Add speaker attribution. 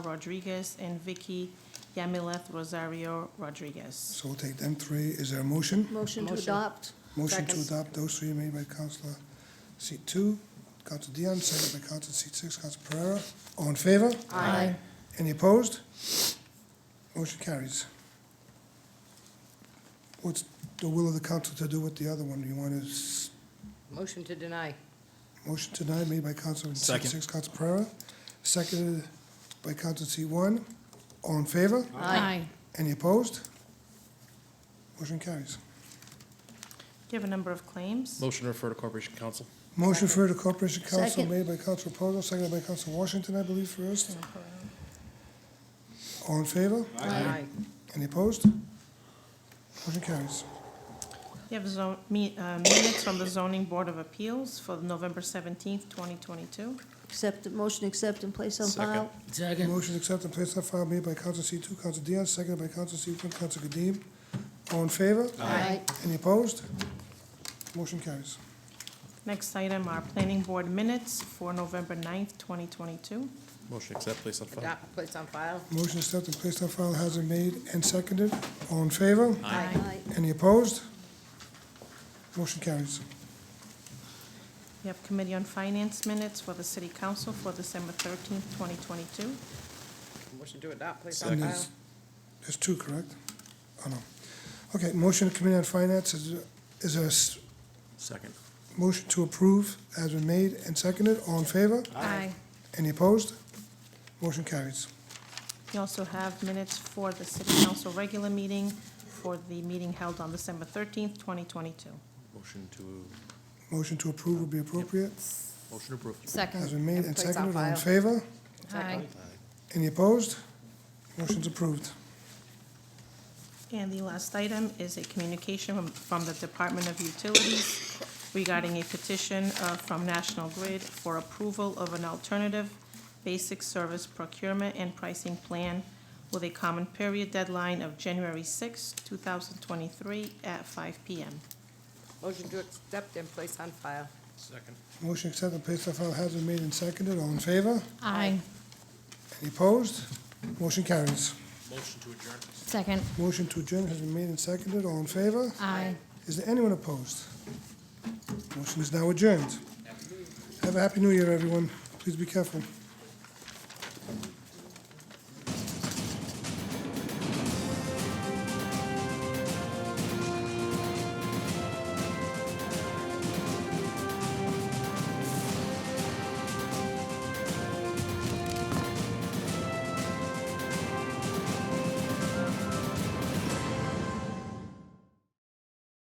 Speaker 1: Rodriguez and Vicky Yamileth Rosario Rodriguez.
Speaker 2: So we'll take them three. Is there a motion?
Speaker 3: Motion to adopt.
Speaker 2: Motion to
Speaker 3: Second.
Speaker 2: adopt those three made by Counselor seat two, Counselor Dion, seconded by Counselor seat six, Counselor Pereira. All in favor?
Speaker 3: Aye.
Speaker 2: Any opposed? Motion carries. What's the will of the council to do with the other one? You want a s-
Speaker 4: Motion to deny.
Speaker 2: motion tonight made by Counselor seat
Speaker 5: Second.
Speaker 2: six, Counselor Pereira, seconded by Counselor seat one. All in favor?
Speaker 4: Aye.
Speaker 2: Any opposed? Motion carries.
Speaker 1: Do you have a number of claims?
Speaker 5: Motion to refer to Corporation Council.
Speaker 2: Motion for the Corporation Council
Speaker 3: Second.
Speaker 2: made by Council Reposo, seconded by Council Washington, I believe, first. All in favor?
Speaker 4: Aye.
Speaker 2: Any opposed? Motion carries.
Speaker 1: You have zo- me- uh, minutes from the Zoning Board of Appeals for November 17th, 2022.
Speaker 3: Accept, motion accept and place on file.
Speaker 2: Motion accepted and placed on file made by Council C two, Council Dion, seconded by Council C one, Council Kadim. All in favor?
Speaker 3: Aye.
Speaker 2: Any opposed? Motion carries.
Speaker 1: Next item are Planning Board minutes for November 9th, 2022.
Speaker 5: Motion to accept, place on file.
Speaker 4: Adopt, place on file.
Speaker 2: Motion accepted and placed on file has been made and seconded. All in favor?
Speaker 3: Aye.
Speaker 2: Any opposed? Motion carries.
Speaker 1: You have Committee on Finance minutes for the City Council for December 13th, 2022.
Speaker 4: Motion to adopt, place on
Speaker 2: And
Speaker 4: file.
Speaker 2: there's, there's two, correct? Oh, no. Okay, motion to Committee on Finance, is, is there a s-
Speaker 5: Second.
Speaker 2: motion to approve has been made and seconded, all in favor?
Speaker 1: Aye.
Speaker 2: Any opposed? Motion carries.
Speaker 1: You also have minutes for the City Council regular meeting for the meeting held on December 13th, 2022.
Speaker 5: Motion to,
Speaker 2: Motion to approve would be appropriate,
Speaker 5: motion approved.
Speaker 2: has been made and
Speaker 4: Place on
Speaker 2: seconded, all in
Speaker 4: file.
Speaker 2: favor?
Speaker 4: Aye.
Speaker 2: Any opposed? Motion's approved.
Speaker 1: And the last item is a communication from- from the Department of Utilities regarding a petition uh, from National Grid for approval of an alternative basic service procurement and pricing plan with a common period deadline of January 6, 2023 at 5 PM.
Speaker 4: Motion to accept and place on file.
Speaker 5: Second.
Speaker 2: Motion accepted and placed on file has been made and seconded, all in favor?
Speaker 6: Aye.
Speaker 2: Any opposed? Motion carries.
Speaker 5: Motion to adjourn.
Speaker 6: Second.
Speaker 2: Motion to adjourn has been made and seconded, all in favor?
Speaker 6: Aye.
Speaker 2: Is there anyone opposed? Motion is now adjourned. Have a happy new year, everyone. Please be careful.